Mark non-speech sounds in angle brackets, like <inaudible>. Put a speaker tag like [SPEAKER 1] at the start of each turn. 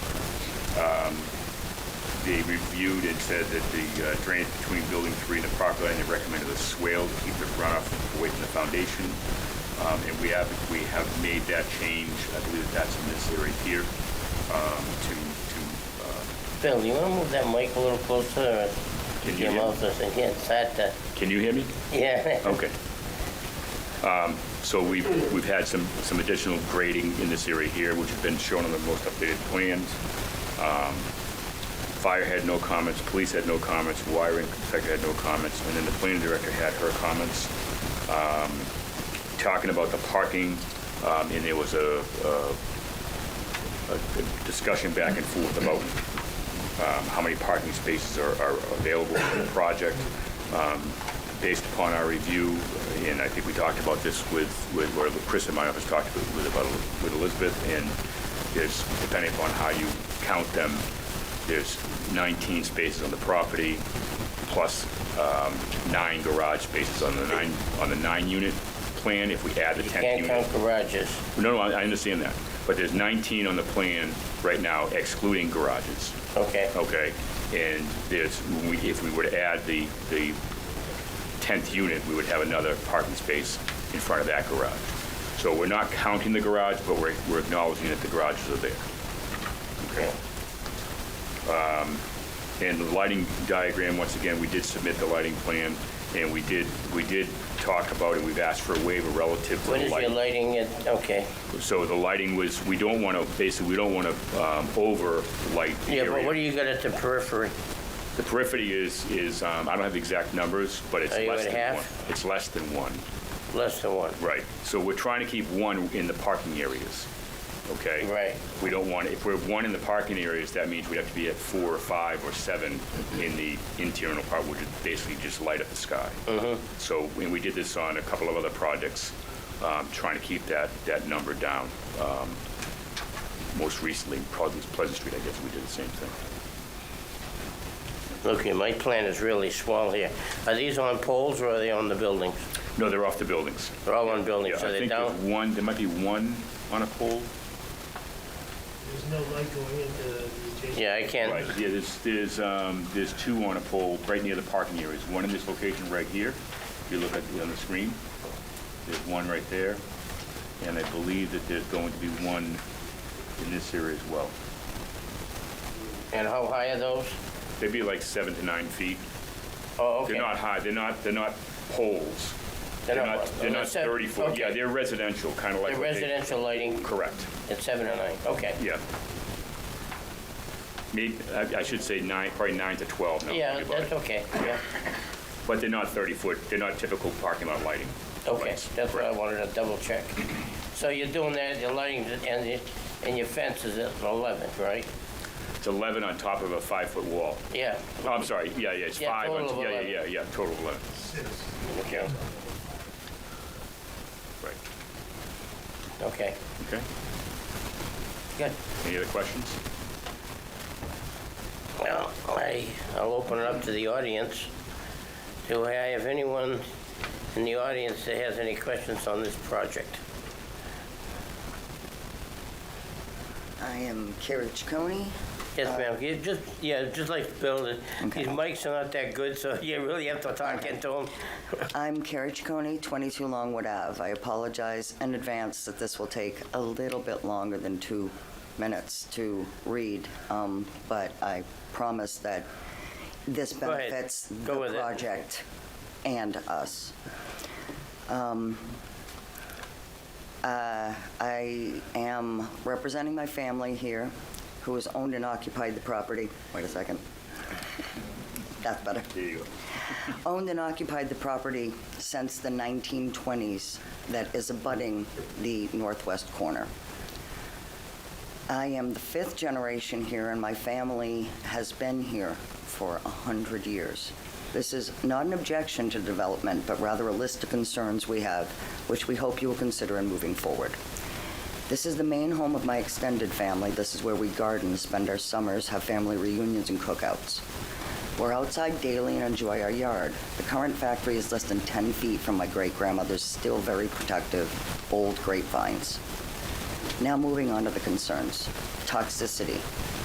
[SPEAKER 1] they reviewed and said that the uh, drainage between building three and the property line, they recommended a swale to keep the runoff away from the foundation. Um, And we have, we have made that change, I believe that's in this area here, um, to, to, uh,
[SPEAKER 2] Phil, you wanna move that mic a little closer or
[SPEAKER 1] Can
[SPEAKER 2] to
[SPEAKER 1] you hear
[SPEAKER 2] your
[SPEAKER 1] me?
[SPEAKER 2] mouth so I can't start to,
[SPEAKER 1] can you hear me?
[SPEAKER 2] yeah.
[SPEAKER 1] Okay. Um, So we've, we've had some, some additional grading in this area here, which has been shown on the most updated plans. Um, Fire had no comments, police had no comments, wiring inspector had no comments, and then the planning director had her comments. Um, Talking about the parking, um, and there was a, a- a discussion back and forth about um, how many parking spaces are are available for the project. Um, Based upon our review, and I think we talked about this with, with or Chris in my office talked with with about, with Elizabeth, and there's, depending upon how you count them, there's 19 spaces on the property, plus um, nine garage spaces on the nine, on the nine-unit plan, if we add the
[SPEAKER 2] You
[SPEAKER 1] 10th
[SPEAKER 2] can't
[SPEAKER 1] unit.
[SPEAKER 2] count garages.
[SPEAKER 1] No, no, I I understand that, but there's 19 on the plan right now excluding garages
[SPEAKER 2] Okay.
[SPEAKER 1] okay? And there's, we- if we were to add the, the 10th unit, we would have another parking space in front of that garage. So we're not counting the garage, but we're, we're acknowledging that the garages are there.
[SPEAKER 2] Okay.
[SPEAKER 1] Um, And the lighting diagram, once again, we did submit the lighting plan, and we did, we did talk about it, we've asked for a waiver relative to
[SPEAKER 2] What
[SPEAKER 1] the
[SPEAKER 2] is your
[SPEAKER 1] lighting.
[SPEAKER 2] lighting at, okay.
[SPEAKER 1] So the lighting was, we don't want to, basically, we don't want to over-light the
[SPEAKER 2] Yeah,
[SPEAKER 1] area.
[SPEAKER 2] but what do you got at the periphery?
[SPEAKER 1] The periphery is, is, um, I don't have the exact numbers, but it's
[SPEAKER 2] Are you
[SPEAKER 1] less
[SPEAKER 2] at
[SPEAKER 1] than
[SPEAKER 2] half?
[SPEAKER 1] one. It's less than one,
[SPEAKER 2] Less than one.
[SPEAKER 1] right. So we're trying to keep one in the parking areas, okay?
[SPEAKER 2] Right.
[SPEAKER 1] We don't want, if we're one in the parking areas, that means we'd have to be at four or five or seven in the internal part, which would basically just light up the sky.
[SPEAKER 2] Mm-hmm.
[SPEAKER 1] So, and we did this on a couple of other projects, um, trying to keep that, that number down. Um, Most recently, probably was Pleasant Street, I guess, we did the same thing.
[SPEAKER 2] Look, here, my plan is really small here. Are these on poles or are they on the buildings?
[SPEAKER 1] No, they're off the buildings.
[SPEAKER 2] They're all on buildings,
[SPEAKER 1] Yeah,
[SPEAKER 2] so
[SPEAKER 1] I
[SPEAKER 2] they're
[SPEAKER 1] think there's
[SPEAKER 2] down?
[SPEAKER 1] one, there might be one on a pole.
[SPEAKER 3] There's no light going into the adjacent.
[SPEAKER 2] Yeah, I
[SPEAKER 1] Right,
[SPEAKER 2] can't,
[SPEAKER 1] yeah, there's, there's, um, there's two on a pole right near the parking areas. One in this location right here, if you look at, the- on the screen. There's one right there, and I believe that there's going to be one in this area as well.
[SPEAKER 2] and how high are those?
[SPEAKER 1] They'd be like seven to nine feet.
[SPEAKER 2] Oh, okay.
[SPEAKER 1] They're not high, they're not, they're not poles.
[SPEAKER 2] They're
[SPEAKER 1] They're
[SPEAKER 2] not
[SPEAKER 1] not,
[SPEAKER 2] what?
[SPEAKER 1] they're not
[SPEAKER 2] Unless they're-
[SPEAKER 1] 30 foot. Yeah,
[SPEAKER 2] okay.
[SPEAKER 1] they're residential, kind of like.
[SPEAKER 2] The
[SPEAKER 1] what they-
[SPEAKER 2] residential lighting
[SPEAKER 1] Correct.
[SPEAKER 2] at seven or nine, okay.
[SPEAKER 1] Yeah. Maybe, I I should say nine, probably nine to 12 now. that I
[SPEAKER 2] Yeah,
[SPEAKER 1] think about
[SPEAKER 2] that's
[SPEAKER 1] it.
[SPEAKER 2] okay, yeah.
[SPEAKER 1] But they're not 30-foot, they're not typical parking lot lighting.
[SPEAKER 2] Okay,
[SPEAKER 1] lights.
[SPEAKER 2] that's what I wanted to double check. So you're doing that, your lighting and your, and your fence is at 11, right?
[SPEAKER 1] It's 11 on top of a five-foot wall.
[SPEAKER 2] Yeah,
[SPEAKER 1] Oh, I'm sorry, yeah, yeah, it's
[SPEAKER 2] Yeah,
[SPEAKER 1] five. on-
[SPEAKER 2] total of
[SPEAKER 1] yeah,
[SPEAKER 2] 11.
[SPEAKER 1] Yeah, yeah, yeah, total of 11,
[SPEAKER 2] okay,
[SPEAKER 1] right.
[SPEAKER 2] okay,
[SPEAKER 1] Okay,
[SPEAKER 2] good.
[SPEAKER 1] any other questions?
[SPEAKER 2] Well, I, I'll open it up to the audience. Do I have anyone in the audience that has any questions on this project?
[SPEAKER 4] I am Carriage Coney.
[SPEAKER 2] Yes, ma'am, you just, yeah, just like Bill, the-
[SPEAKER 4] Okay.
[SPEAKER 2] these mics are not that good, so <laughs> you really have to talk into them.
[SPEAKER 4] I'm Carriage Coney, 22 Longwood Ave. I apologize in advance that this will take a little bit longer than two minutes to read, um, but I promise that this
[SPEAKER 2] Go ahead.
[SPEAKER 4] benefits
[SPEAKER 2] Go
[SPEAKER 4] the
[SPEAKER 2] with it.
[SPEAKER 4] project and us. Um, uh, I am representing my family here, who has owned and occupied the property. Wait a second. That's better.
[SPEAKER 1] There you go.
[SPEAKER 4] Owned and occupied the property since the 1920s that is abutting the northwest corner. I am the fifth generation here, and my family has been here for 100 years. This is not an objection to development, but rather a list of concerns we have, which we hope you will consider in moving forward. This is the main home of my extended family. This is where we garden, spend our summers, have family reunions and cookouts. We're outside daily and enjoy our yard. The current factory is less than 10 feet from my great grandmother's still very protective old grapevines. Now moving on to the concerns. Toxicity.